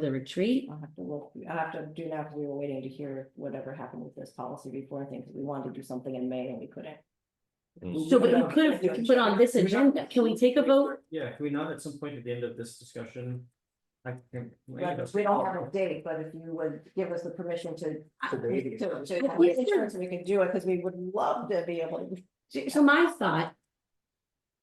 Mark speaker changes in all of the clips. Speaker 1: the retreat?
Speaker 2: I'll have to look, I'll have to do now, because we were waiting to hear whatever happened with this policy before, I think, 'cause we wanted to do something in May and we couldn't.
Speaker 3: Mm.
Speaker 1: So, but you could have put on this agenda. Can we take a vote?
Speaker 4: Yeah, can we not at some point at the end of this discussion? I can.
Speaker 2: But we don't have a date, but if you would give us the permission to.
Speaker 3: To
Speaker 2: To,
Speaker 3: date.
Speaker 2: to have the insurance, we can do it, because we would love to be able to.
Speaker 1: So my thought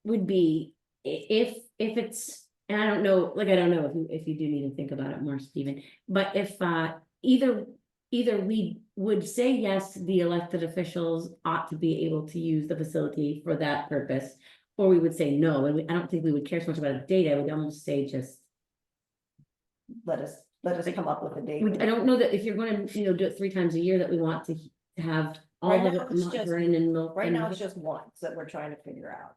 Speaker 1: would be i- if, if it's, and I don't know, like, I don't know if you, if you do need to think about it more, Stephen. But if, uh, either, either we would say yes, the elected officials ought to be able to use the facility for that purpose. Or we would say no, and we, I don't think we would care so much about a date. I would almost say just
Speaker 2: Let us, let us come up with a date.
Speaker 1: We- I don't know that if you're gonna, you know, do it three times a year that we want to he- have all
Speaker 2: Right
Speaker 1: of
Speaker 2: now
Speaker 1: it,
Speaker 2: it's
Speaker 1: not
Speaker 2: just-
Speaker 1: Vernon and Milton.
Speaker 2: Right now, it's just once that we're trying to figure out.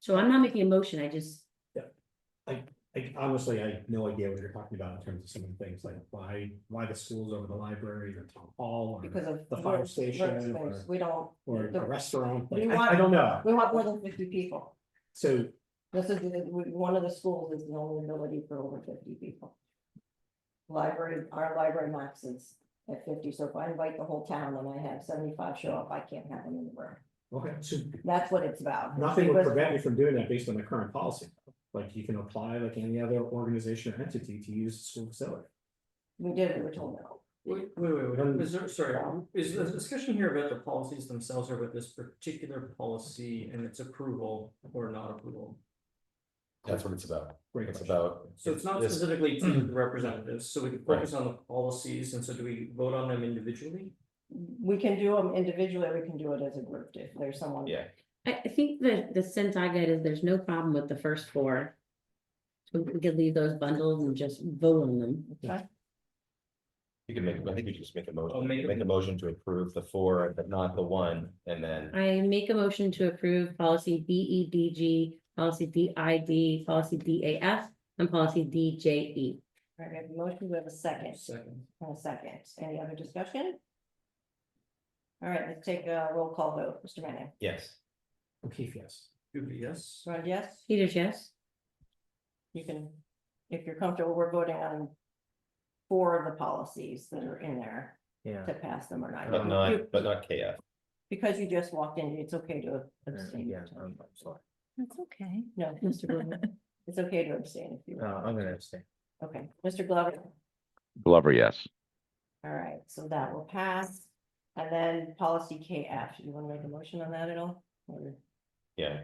Speaker 1: So I'm not making a motion, I just,
Speaker 3: I honestly, I have no idea what you're talking about in terms of some of the things, like why, why the schools over the library or town hall or,
Speaker 2: because of.
Speaker 3: The fire
Speaker 2: work-
Speaker 3: station
Speaker 2: workspace.
Speaker 3: or-
Speaker 2: We don't,
Speaker 3: or
Speaker 2: the-
Speaker 3: a restaurant,
Speaker 2: we
Speaker 3: like, I,
Speaker 2: want-
Speaker 3: I don't know.
Speaker 2: we want more than fifty people.
Speaker 3: So,
Speaker 2: This is, the- one of the schools is the only ability for over fifty people. Library, our library max is at fifty, so if I invite the whole town and I have seventy-five show up, I can't have them in the room.
Speaker 3: okay, so
Speaker 2: That's what it's about.
Speaker 3: nothing would
Speaker 2: Because-
Speaker 3: prevent you from doing that based on the current policy. Like, you can apply like any other organization or entity to use the school facility.
Speaker 2: We did, we were told no.
Speaker 4: Wait, wait, wait,
Speaker 3: Um,
Speaker 4: wait, is there, sorry, is the discussion here about the policies themselves or about this particular policy and its approval or not approval?
Speaker 5: That's what it's about.
Speaker 3: Great
Speaker 5: It's
Speaker 3: question.
Speaker 5: about.
Speaker 4: So it's not
Speaker 5: this-
Speaker 4: specifically to the representatives, so we can focus on the policies, and so do we vote on them individually?
Speaker 2: We can do them individually, or we can do it as a group if there's someone.
Speaker 5: Yeah.
Speaker 1: I, I think the, the sense I get is there's no problem with the first four. So We could leave those bundles and just vote on them.
Speaker 5: You can make, I think you just make a
Speaker 4: I'll
Speaker 3: Oh,
Speaker 5: motion,
Speaker 4: make a-
Speaker 5: make a motion to approve the four, but not the one, and then.
Speaker 1: I make a motion to approve policy B E D G, policy D I D, policy D A F, and policy D J E.
Speaker 2: All right, we have a motion, we have a second,
Speaker 4: Second,
Speaker 2: and a second. Any other discussion? All right, let's take a roll call vote. Mr. Manning,
Speaker 5: Yes.
Speaker 3: O'Keefe, yes.
Speaker 4: Duty, yes,
Speaker 2: Rod, yes?
Speaker 1: Peters, yes?
Speaker 2: you can, if you're comfortable, we're voting on four of the policies that are in there
Speaker 4: yeah.
Speaker 2: to pass them or not.
Speaker 3: Um,
Speaker 5: But
Speaker 2: You-
Speaker 5: not, but not KF.
Speaker 2: Because you just walked in, it's okay to
Speaker 3: Uh,
Speaker 2: abstain.
Speaker 3: sorry.
Speaker 6: That's okay.
Speaker 2: No, Mr. Glover, it's okay to abstain if you, want.
Speaker 3: I'm gonna abstain.
Speaker 2: okay, Mr. Glover,
Speaker 7: Glover, yes.
Speaker 2: all right, so that will pass. And then policy KF, you want to make a motion on that at all? Or
Speaker 5: Yeah.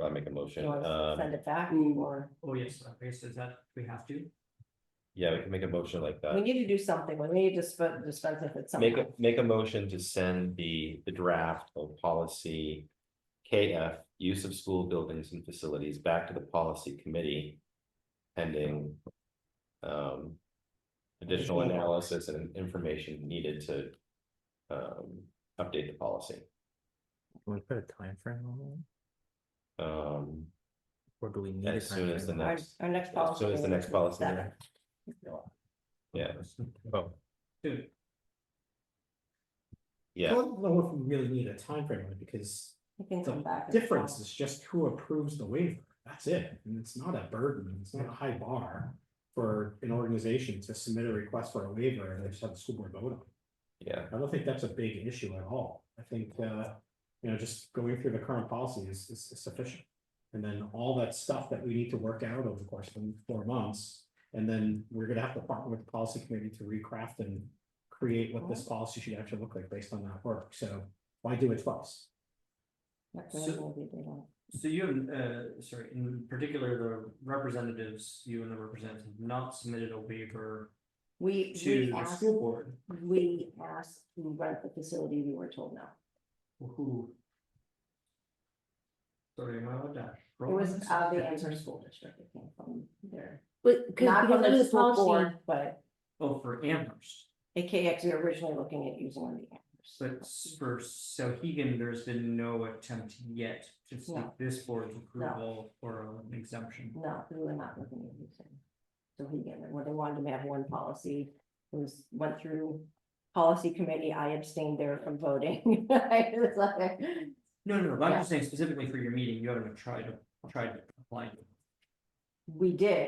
Speaker 5: I'll make a
Speaker 2: do
Speaker 5: motion.
Speaker 2: you want to send
Speaker 5: Um,
Speaker 2: it back
Speaker 4: Ooh.
Speaker 2: or,
Speaker 4: Oh, yes, okay, so is that, we have to?
Speaker 5: yeah, we can make a motion like
Speaker 2: we
Speaker 5: that.
Speaker 2: need to do something, we need to disp- dispense with it
Speaker 5: Uh, Make
Speaker 2: somehow.
Speaker 5: a, make a motion to send the, the draft of policy. KF, use of school buildings and facilities back to the policy committee. Pending. Um. Additional analysis and information needed to. Um, update the policy.
Speaker 3: Want to put a time frame on that?
Speaker 5: Um,
Speaker 3: Or do we need?
Speaker 5: as soon as the
Speaker 2: Our,
Speaker 5: next,
Speaker 2: our next policy.
Speaker 5: as soon as the next policy.
Speaker 2: Seven.
Speaker 5: meeting. Yeah,
Speaker 3: Oh.
Speaker 4: Dude,
Speaker 3: I
Speaker 5: yeah,
Speaker 3: don't know if we really need a time frame on it because
Speaker 2: You can come
Speaker 3: the
Speaker 2: back. and-
Speaker 3: difference is just who approves the waiver. That's it. And it's not a burden. It's not a high bar for an organization to submit a request for a waiver and they just have the school board vote on. it.
Speaker 5: yeah,
Speaker 3: I don't think that's a big issue at all. I think, uh, you know, just going through the current policy is, is is sufficient. And then all that stuff that we need to work out over the course of four months. And then we're gonna have to partner with the policy committee to recraft and create what this policy should actually look like based on that work. So why do it twice?
Speaker 2: Next meeting will be the one.
Speaker 4: so you, and, uh, sorry, in particular, the representatives, you and the representatives have not submitted a waiver
Speaker 2: We,
Speaker 4: to
Speaker 2: we
Speaker 4: the
Speaker 2: asked,
Speaker 4: school board.
Speaker 2: we asked who rent the facility, we were told no.
Speaker 4: Who? Sorry, am I allowed to?
Speaker 2: It was uh, the Answer School District, it came from there.
Speaker 1: But, because
Speaker 2: Not from
Speaker 1: under
Speaker 2: the
Speaker 1: the
Speaker 2: school
Speaker 1: policy,
Speaker 2: board, but
Speaker 4: Oh, for Amherst,
Speaker 2: AKX, we were originally looking at using on the
Speaker 4: but
Speaker 2: Amherst.
Speaker 4: s- for Sauhegan, there's been no attempt yet to seek
Speaker 2: No.
Speaker 4: this board's approval or an exemption.
Speaker 2: No, we were not looking at using. So he, get it. well, they wanted to have one policy, it was, went through policy committee, I abstained there from voting. I was like,
Speaker 4: No, no, no, but I'm just saying specifically for your meeting, you haven't tried to, tried to apply.
Speaker 2: we did,